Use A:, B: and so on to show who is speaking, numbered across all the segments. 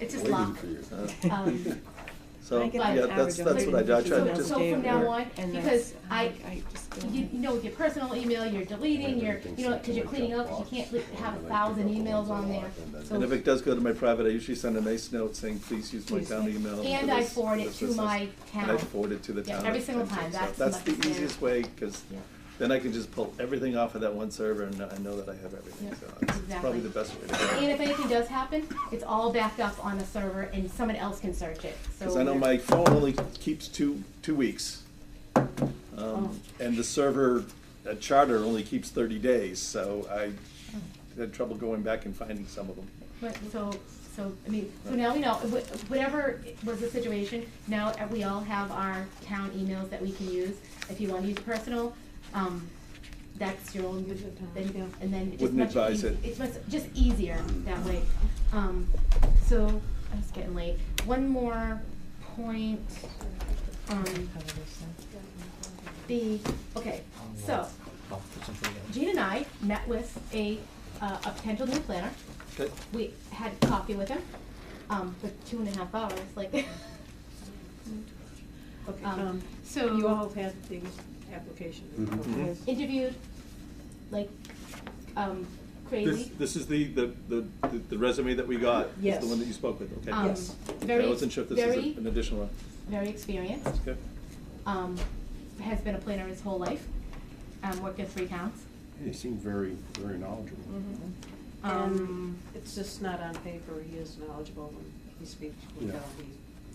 A: It's just
B: waiting
A: lock.
B: for you.
A: Um,
B: So,
C: I get
B: yeah,
C: an
B: that's,
C: average of
B: that's what I do, I try to
C: 30
B: just.
A: So
C: days
A: from
C: at
A: now
C: work,
A: on,
C: and
A: because
C: that's-
A: I,
C: just don't-
A: you, you know, with your personal email, you're deleting, you're, you know, because you're cleaning up, 'cause you can't li- have a thousand emails on there. So-
B: And if it does go to my private, I usually send a nice note saying, please use my town email. for
A: And I
B: this,
A: forward it
B: this,
A: to
B: this, this."
A: my
B: And I
A: town.
B: forward it to the
A: Yeah,
B: town.
A: every single
B: and so-
A: time.
B: so
A: That's
B: That's
A: much
B: the
A: better.
B: easiest way, because then I can just pull everything off of that one server and I know that I have everything,
A: Yeah,
B: so it's- it's
A: exactly.
B: probably the best way to go.
A: And if anything does happen, it's all backed up on a server and someone else can search it, so.
B: Because I know
A: there-
B: my phone only keeps two, two weeks.
A: Oh.
B: Um, And the server at Charter only keeps thirty days, so I
A: Hmm.
B: had trouble going back and finding some of them.
A: But, so, so, I mean, so now we know, wh- whatever was the situation, now we all have our town emails that we can use. If you wanna use personal, um, that's your own, then, and then it's just
B: Wouldn't
A: much
B: advise
A: eas-
B: it.
A: It's much, just easier that way. Um, so, I was getting late. One more point, um, the, okay, so, Gene and I met with a, uh, a potential new planner
B: Okay,
A: we had coffee with him um, for two and a half hours. Like,
C: Okay,
A: Um,
C: um,
A: so-
C: You all have the application.
B: Mhm.
D: Mm-hmm.
C: Okay.
A: interviewed like um,
B: This,
A: crazy.
B: this is the, the, the the resume that we got, is
C: Yes.
B: the one that you spoke with, okay?
A: um,
C: yes.
A: Very,
B: I wasn't sure if this is
A: very,
B: a- an additional one,
A: very experienced.
B: okay?
A: Um, has been a planner his whole life. Um, worked in three towns.
E: He seemed very, very knowledgeable.
A: Mm-hmm.
C: Mhm.
B: Mm-hmm.
A: Um,
C: It's just not on paper, he is knowledgeable when he speaks, we
E: Yeah.
C: know he.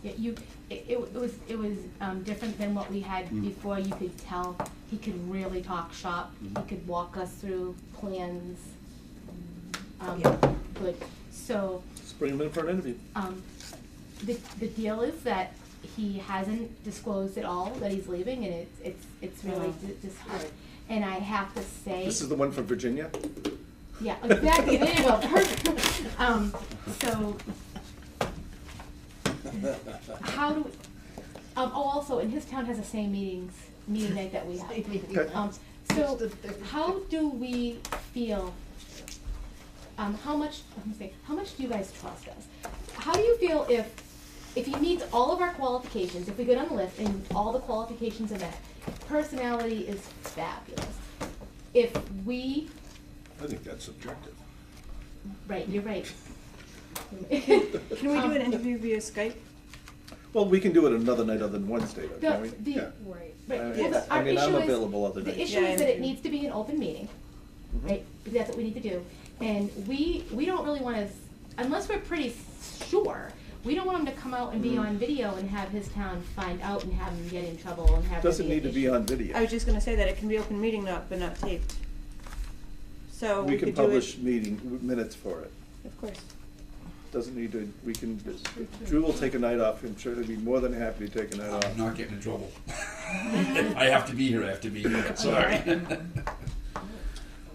A: Yeah, you, it, it was, it was, um, different than what we had
E: Mm.
A: before, you could tell, he could really talk shop, he
B: Mm-hmm.
E: Mhm.
A: could walk us through plans. Um,
C: Yeah.
A: good, so,
B: Just bring them in for an interview.
A: um, the, the deal is that he hasn't disclosed at all that he's leaving, and it's, it's, it's really
C: Oh.
A: di- disheartening. And I have to say.
B: This is the one from Virginia?
A: Yeah, exactly, there you go, perfect. Um, so. How do, um, oh, also, and his town has the same meetings, meeting night that we have.
B: Okay.
A: Um, so, how do we feel, um, how much, let me see, how much do you guys trust us? How do you feel if, if he meets all of our qualifications, if we go down the list and all the qualifications are met, personality is fabulous. If we
E: I think that's subjective.
A: Right, you're right.
C: Can we do an interview via Skype?
B: Well, we can do it another night other than Wednesday, though,
A: The,
B: can we?
A: the,
B: Yeah. Mm-hmm.
C: Right.
A: right,
B: I mean,
A: well, the-
B: I
A: our
B: mean, I'm
A: issue is-
B: available other nights.
A: The issue
C: Yeah,
A: is that it
C: and-
A: needs to be an open meeting,
B: Mhm.
A: right, because that's what we need to do. And we, we don't really wanna, unless we're pretty sure, we don't want him to come out and be
B: Mhm.
A: on video and have his town find out and have him get in trouble and have. there
B: Doesn't
A: an
B: need to be
A: issue.
B: on video.
C: I was just gonna say that, it can be open meeting, not, but not taped. So
B: We
C: we
B: can
C: could do
B: publish
C: it,
B: meeting, minutes for it.
C: of course.
B: Doesn't need to, we can, Drew will take a night off, I'm sure he'd be more than happy to take a night off.
F: I'm not getting in trouble. I have to be here, I have to be here, sorry.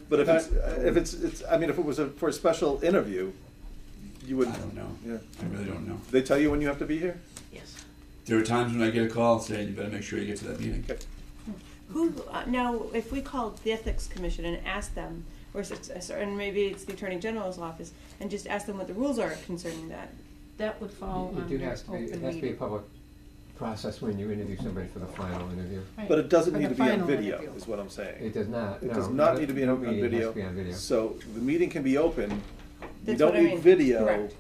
B: But if it's, uh, if it's, it's, I mean, if it was a, for a special interview, you
F: I
B: wouldn't.
F: don't know.
B: Yeah.
F: I really don't know.
B: They tell you when you have to be here?
C: Yes.
F: There are times when I get a call saying, you better make sure you get to that meeting.
B: Okay.
C: Who, uh, now, if we called the Ethics Commission and asked them, or, s- s- or- and maybe it's the Attorney General's office, and just asked them what the rules are concerning that, that would fall
D: It do
A: um,
C: under
D: has to be, it
C: open
D: has to be a
C: meeting.
D: public process when you interview somebody for the final interview.
A: Right.
B: But it doesn't
G: For
B: need
G: the
B: to be on
G: final
B: video,
G: interview.
B: is what I'm saying.
D: It does not, no.
B: It does not
D: the-
B: need to be
D: no
B: on on
D: meeting has
B: video.
D: to be on video.
B: So the meeting can be open. We
C: That's
B: don't
C: what I
B: need
C: mean.
B: video,
C: Correct.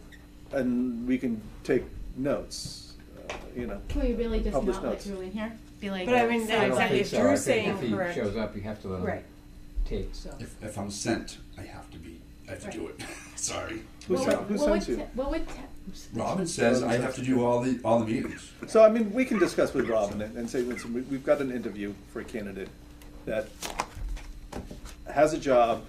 B: and we can take notes, uh, you know.
A: Can we really just
B: Publish
A: not let
B: notes.
A: Drew in here? Be like.
C: But I mean,
D: I
C: that
D: don't
C: exactly,
D: think
C: if
D: so.
C: Drew's
D: I think
C: saying correct.
D: If he shows up, you have to let him
C: Right.
D: take.
F: If, if I'm sent, I have to be, I have to do it, sorry.
B: Who
A: What
B: sent-
A: would-
B: who
A: what would
B: sends you?
A: te- What would, te-
F: Robin says I have to do all the, all the meetings.
B: So, I mean, we can discuss with Robin and and say, listen, we- we've got an interview for a candidate that has a job,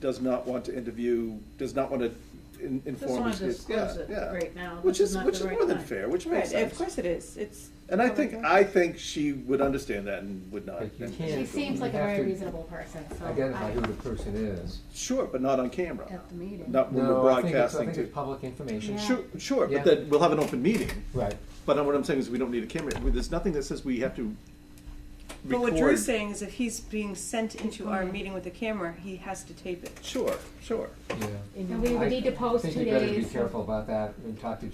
B: does not want to interview, does not want to in- inform.
G: wanna
B: his kids.
G: disclose
B: Yeah,
G: it
B: yeah.
G: right now.
B: Which
G: This is
B: is,
G: not
B: which
G: the
B: is
G: right
B: more than
G: time.
B: fair, which makes
C: Right,
B: sense.
C: of course it is, it's.
B: And I think,
C: public
B: I think she would understand that and would not.
D: But you
B: and-
A: she
D: can't-
A: seems like a
D: You have
A: very
D: to
A: reasonable person, so.
D: Identify
A: I-
D: who the person is.
B: Sure, but not on camera.
G: At the meeting.
B: Not when we're
D: No, I think it's, I
B: broadcasting
D: think it's
B: to.
D: public information.
A: Yeah.
B: Sure, sure,
D: Yeah.
B: but then we'll have an open meeting,
D: Right.
B: but what I'm saying is we don't need a camera. There's nothing that says we have to
C: But
B: record.
C: what Drew's saying is if he's being sent into our meeting with a camera, he has to tape it.
B: Sure, sure.
D: Yeah.
A: And we would need to post two
D: I think you better be
A: days.
D: careful about that and talk to